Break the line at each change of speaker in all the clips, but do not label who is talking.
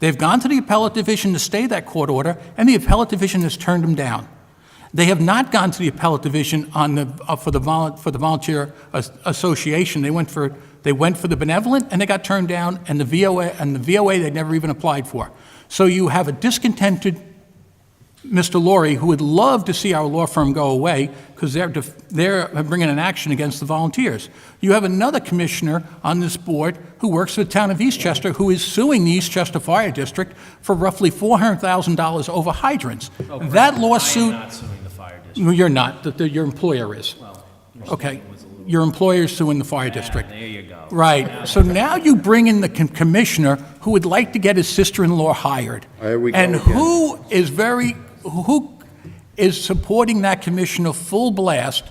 They've gone to the appellate division to stay that court order, and the appellate division has turned them down. They have not gone to the appellate division on the, uh, for the vol, for the volunteer as- association. They went for, they went for the benevolent, and they got turned down, and the VOA, and the VOA they never even applied for. So you have a discontented Mr. Laurie, who would love to see our law firm go away because they're, def- they're bringing an action against the volunteers. You have another commissioner on this board who works for the town of Eastchester who is suing the Eastchester Fire District for roughly $400,000 over hydrants. That lawsuit,
Oh, I am not suing the fire district.
No, you're not, The- the- your employer is. Okay, your employer's suing the fire district.
There you go.
Right. So now you bring in the com- commissioner who would like to get his sister-in-law hired.
Here we go
And
again.
who is very, who is supporting that commissioner full blast?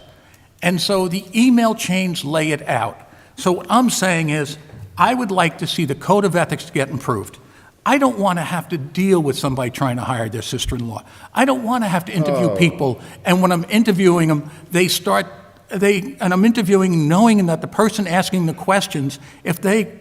And so the email chains lay it out. So what I'm saying is, I would like to see the code of ethics get improved. I don't want to have to deal with somebody trying to hire their sister-in-law. I don't want to have to interview people, and when I'm interviewing them, they start they and I'm interviewing knowing that the person asking the questions, if they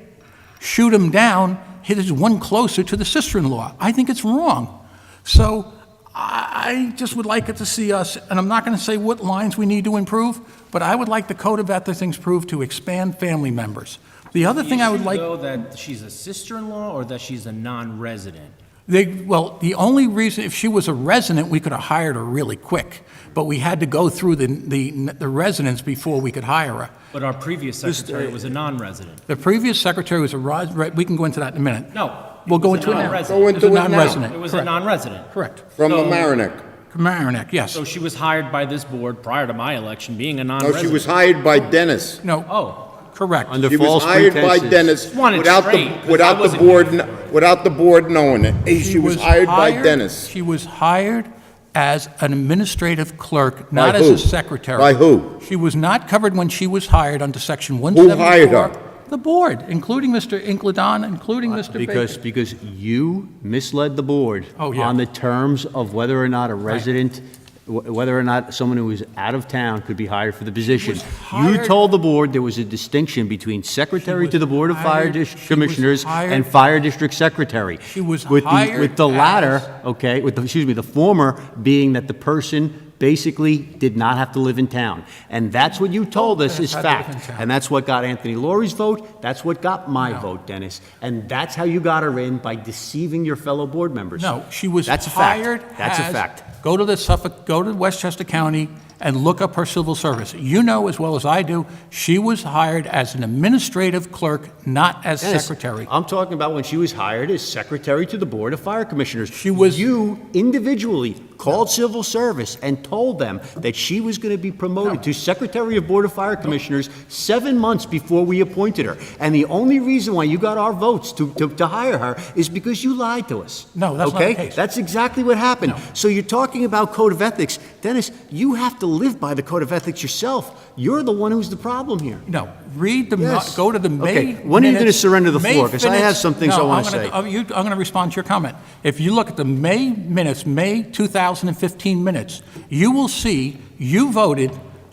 shoot him down, hit his one closer to the sister-in-law. I think it's wrong. So I I just would like it to see us, and I'm not going to say what lines we need to improve, but I would like the code of ethics improved to expand family members. The other thing I would like.
Though that she's a sister-in-law or that she's a non-resident?
They, well, the only reason, if she was a resident, we could have hired her really quick, but we had to go through the, the, the residents before we could hire her.
But our previous secretary was a non-resident.
The previous secretary was a, ros- right, we can go into that in a minute.
No.
We'll
it
go
was
into
a
it now.
non-resident.
Go into
It's a
it now.
non-resident.
It was a non-resident.
Correct.
From the
So-
Mamaroneck.
Mamaroneck, yes.
So she was hired by this board prior to my election, being a
No, she
non-resident.
was hired by Dennis.
No,
Oh,
correct.
Under
She was
false
hired by
pretenses.
Dennis
Just want it
without
straight,
the,
'cause I
without the
wasn't
board,
here
kn- without the board knowing it. Eh, She was hired by Dennis.
She was hired as an administrative clerk, not as
who?
a secretary.
By who?
She was not covered when she was hired under Section
Who
174.
hired her?
The board, including Mr. Inkledon, including Mr. Baker.
Uh, Because, because you misled the board.
Oh, yeah.
On the terms of whether or not a resident, wh- whether or not someone who was out of town could be hired for the position.
was
You
hired-
told the board there was a distinction between secretary
was
to the Board of Fire
hired-
Dis-
she was
Commissioners and
hired-
fire district secretary.
She was
With the-
hired
With the
as-
latter, okay, with, the excuse me, the former being that the person basically did not have to live in town. And that's what you told us is
Had to live in
fact.
town.
And that's what got Anthony Laurie's vote, that's what got my vote, Dennis. And that's how you got her in, by deceiving your fellow board members.
No, she was
That's a fact.
hired
That's a
as-
fact.
Go to the Suffolk, go to Westchester County and look up her civil service. You know as well as I do, she was hired as an administrative clerk, not as
Dennis,
secretary.
I'm talking about when she was hired as secretary to the Board of Fire Commissioners.
She was-
You individually called civil service and told them that she was going to be promoted to secretary of Board of Fire Commissioners seven months before we appointed her. And the only reason why you got our votes to, to, to hire her is because you lied to us.
No, that's not the
Okay?
case.
That's exactly what happened. So you're talking about code of ethics. Dennis, you have to live by the code of ethics yourself. You're the one who's the problem here.
No, read the, mo-
Yes.
go to the May
Okay, when are you gonna
minutes-
surrender the
May
floor? 'Cause I
minutes-
have some things
No,
I wanna
I'm gonna-
say.
oh, you- I'm going to respond to your comment. If you look at the May minutes, May 2015 minutes, you will see you voted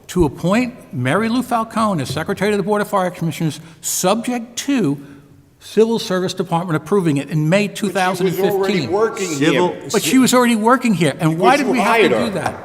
to appoint Mary Lou Falcone as Secretary of the Board of Fire Commissioners, subject to Civil Service Department approving it in May
She was
2015.
already working
Civil-
here.
But she was already working here, and why
Because
did
you
we have to
hired her.
do that?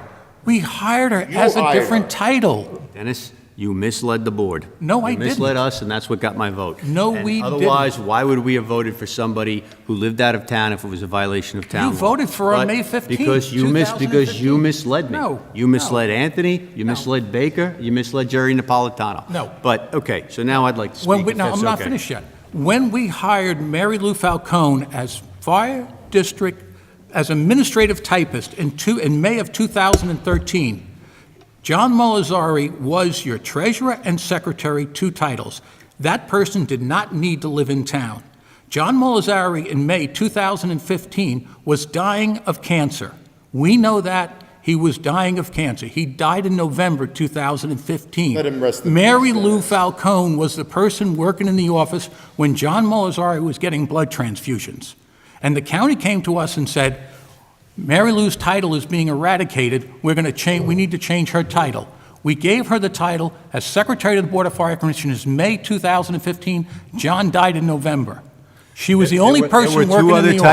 We hired her
You
as a
hired her.
different title.
Dennis, you misled the board.
No, I
You misled
didn't.
us, and that's what got my vote.
No,
And
we didn't.
Otherwise, why would we have voted for somebody who lived out of town if it was a violation of town law?
voted for her
But
May 15th,
Because you mis, because you
2015.
misled me.
No,
You
no.
misled Anthony, you misled Baker, you misled Jerry Napolitano.
No.
But, okay, so now I'd like to
When
speak,
we,
if
no,
that's
I'm not
okay.
finished yet. When we hired Mary Lou Falcone as fire district, as administrative typist in two, in May of 2013, John Molazari was your treasurer and secretary, two titles. That person did not need to live in town. John Molazari in May 2015 was dying of cancer. We know that. He was dying of cancer. He died in November 2015.
Let him rest in
Mary
peace,
Lou
Dennis.
Falcone was the person working in the office when John Molazari was getting blood transfusions. And the county came to us and said, Mary Lou's title is being eradicated. We're going to change, we need to change her title. We gave her the title as Secretary of the Board of Fire Commissioners, May 2015. John died in November. She was the
There
only
were- there were
person
two
working in
other
the
types